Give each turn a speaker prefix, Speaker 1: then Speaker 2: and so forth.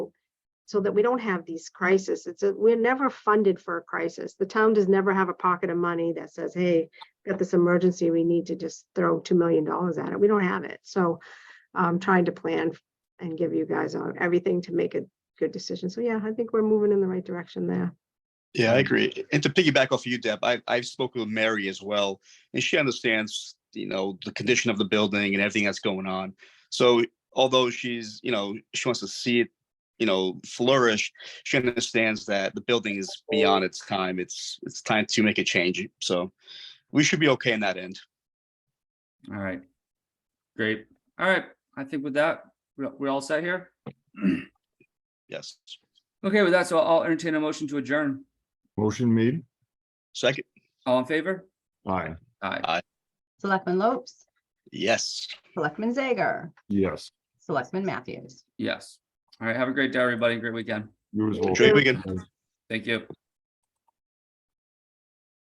Speaker 1: so that we don't have these crises. It's, a- we're never funded for a crisis. The town does never have a pocket of money that says, hey, got this emergency, we need to just throw $2 million at it. We don't have it. So I'm trying to plan and give you guys uh, everything to make a good decision. So yeah, I think we're moving in the right direction there.
Speaker 2: Yeah, I agree. And to piggyback off of you, Deb, I, I've spoken with Mary as well, and she understands, you know, the condition of the building and everything that's going on. So although she's, you know, she wants to see it, you know, flourish, she understands that the building is beyond its time. It's, it's time to make a change. So we should be okay in that end.
Speaker 3: All right. Great. All right. I think with that, we're, we're all set here.
Speaker 2: Yes.
Speaker 3: Okay, with that, so I'll entertain a motion to adjourn.
Speaker 4: Motion made.
Speaker 2: Second,
Speaker 3: All in favor?
Speaker 4: Aye,
Speaker 3: Aye.
Speaker 5: Selectman Lopes,
Speaker 2: yes.
Speaker 5: Selectman Zager,
Speaker 4: yes.
Speaker 5: Selectman Matthews.
Speaker 3: Yes. All right. Have a great day, everybody. Great weekend.
Speaker 4: You as well.
Speaker 2: Enjoy your weekend.
Speaker 3: Thank you.